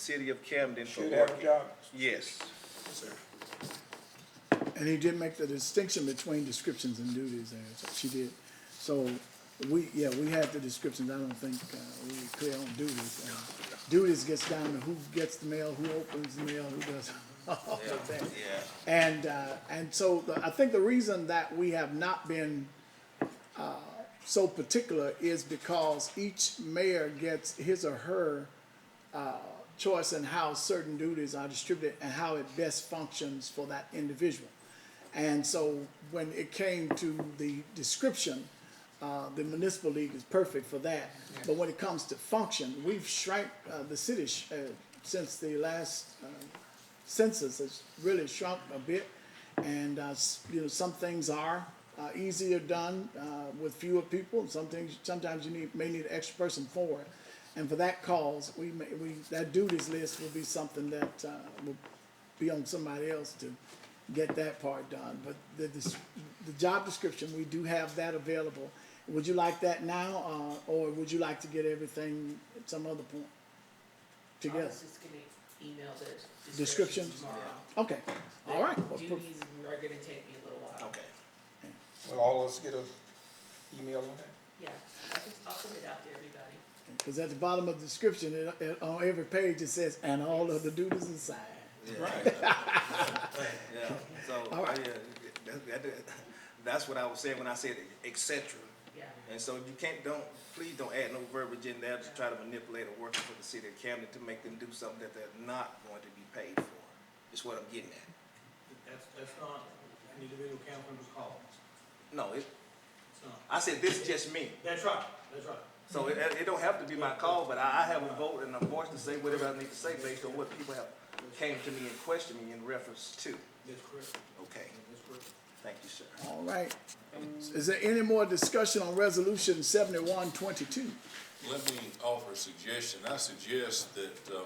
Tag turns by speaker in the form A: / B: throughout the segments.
A: city of Camden for
B: Should have a
A: parking.
B: job.
A: Yes,
C: And he did make the distinction between descriptions and duties there, so she did. So, we, yeah, we had the descriptions, I don't think, uh, we were clear on duties. Uh, Duties gets down to who gets the mail, who opens the mail, who does all of that.
A: yeah.
C: And, uh, and so the, I think the reason that we have not been, uh, so particular is because each mayor gets his or her, uh, choice in how certain duties are distributed and how it best functions for that individual. And so when it came to the description, uh, the municipal league is perfect for that. But when it comes to function, we've shrank, uh, the city, sh- uh, since the last, uh, census has really shrunk a bit. And, uh, s- you know, some things are, uh, easier done, uh, with fewer people, and some things, sometimes you need, may need an extra person for it. And for that cause, we may, we, that duties list will be something that, uh, will be on somebody else to get that part done. But the, this, the job description, we do have that available. Would you like that now, uh, or would you like to get everything at some other point together?
D: Office is gonna email the
C: Descriptions?
D: description tomorrow.
C: Okay, all right. Oh.
D: The
C: Well, per-
D: Duties are gonna take me a little while.
A: Okay.
B: Will all of us get a email on that?
D: Yeah, I can, I'll send it out to everybody.
C: Because at the bottom of the description, it, it, on every page, it says, and all of the duties assigned.
A: Right. Yeah, so,
C: All right.
A: yeah, that, that, that's what I was saying when I said et cetera.
D: Yeah,
A: And so you can't, don't, please don't add no verbiage in there to try to manipulate or work for the city of Camden to make them do something that they're not going to be paid for, is what I'm getting at.
E: That's, that's not an individual council member's call.
A: No, it,
E: It's not.
A: I said, this is just me.
E: That's right, that's right.
A: So it, it don't have to be my call, but I, I have a vote and a voice to say whatever I need to say based on what people have came to me and questioned me in reference to.
E: That's correct.
A: Okay,
E: That's correct.
A: thank you, sir.
C: All right. Is there any more discussion on resolution seventy-one twenty-two?
F: Let me offer a suggestion. I suggest that, uh,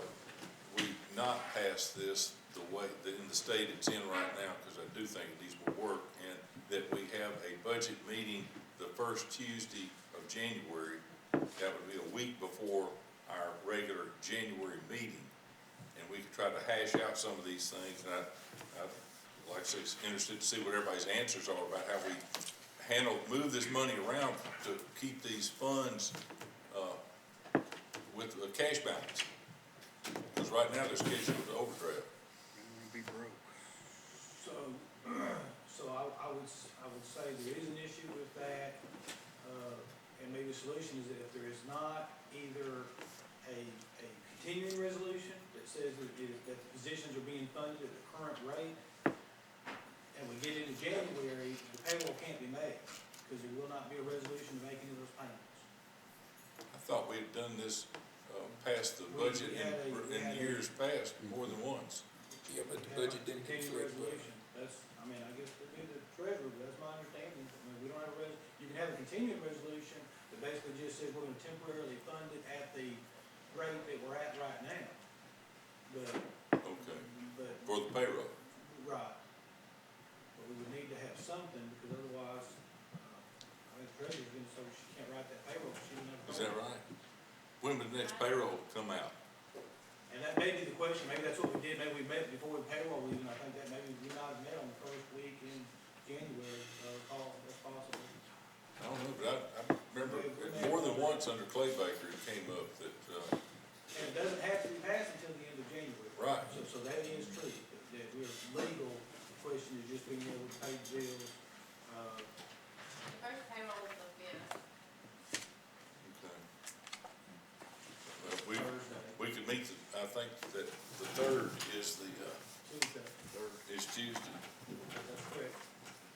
F: we not pass this the way, that in the state it's in right now, because I do think these will work, and that we have a budget meeting the first Tuesday of January. That would be a week before our regular January meeting. And we could try to hash out some of these things, and I, I'd like to, say it's interested to see what everybody's answers are about how we handle, move this money around to keep these funds with a cash balance. Because right now, they're scheduled to overdraft.
E: So, so I, I would, s- I would say there is an issue with that, uh, and maybe the solution is that if there is not either a, a continuing resolution that says that, it- that the positions are being funded at the current rate, and we get into January, the payroll can't be made, because there will not be a resolution to make any of those payments.
F: I thought we had done this, uh, past the budget in, in years past, more than once.
G: Yeah, but the budget didn't
E: Continue
G: conflict with
E: resolution, that's, I mean, I guess we be the treasurer, but that's my understanding, I mean, we don't have a res, you can have a continuing resolution that basically just says we're gonna temporarily fund it at the rate that we're at right now. But,
F: Okay,
E: but,
F: for the payroll.
E: right, but we would need to have something, because otherwise, uh, I mean, the treasurer's gonna, so she can't write that payroll, she doesn't have. a
F: Is that
E: payroll.
F: right? When would the next payroll come out?
E: And that may be the question, maybe that's what we did, maybe we met before the payroll even, I think that maybe we not met on the first week in January, uh, call, that's possible.
F: I don't know, but I, I remember it more than once under Clay Baker, it came up that, uh,
E: And it doesn't have to be passed until the end of January.
F: Right.
E: So, so that is true, that- that we're legal, the question is just being able to pay bills, uh,
H: The first payroll was the fifth.
F: okay. Well,
E: Thursday,
F: we, we could meet, the- I think that the third is the, uh,
E: Tuesday,
F: is Tuesday.
E: that's correct.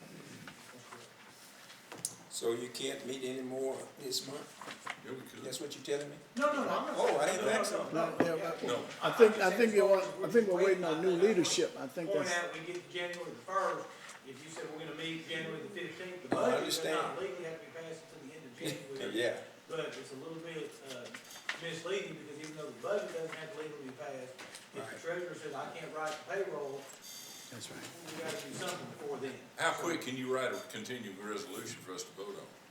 E: That's correct.
G: it. So you can't meet anymore this month?
F: Yeah, we could.
G: That's what you're telling me?
E: No, no, no, I'm not.
G: Oh, I didn't
E: no,
G: think
E: no,
G: so.
E: no, no, yeah.
F: No,
C: I think, I think it was, I think we're waiting on new leadership. I think
E: Point
C: that's,
E: out, we get to January the first, if you said we're gonna meet January the fifteenth,
G: Oh, I
E: the budget does
G: understand.
E: not legally have to be passed until the end of January.
G: Yeah,
E: But it's a little bit uh, misleading, because even though the budget doesn't have to legally be passed, if the
G: Right.
E: treasurer says, I can't write the payroll,
C: that's right.
E: we gotta do something before then.
F: How quick can you write a continuing resolution for us to vote on?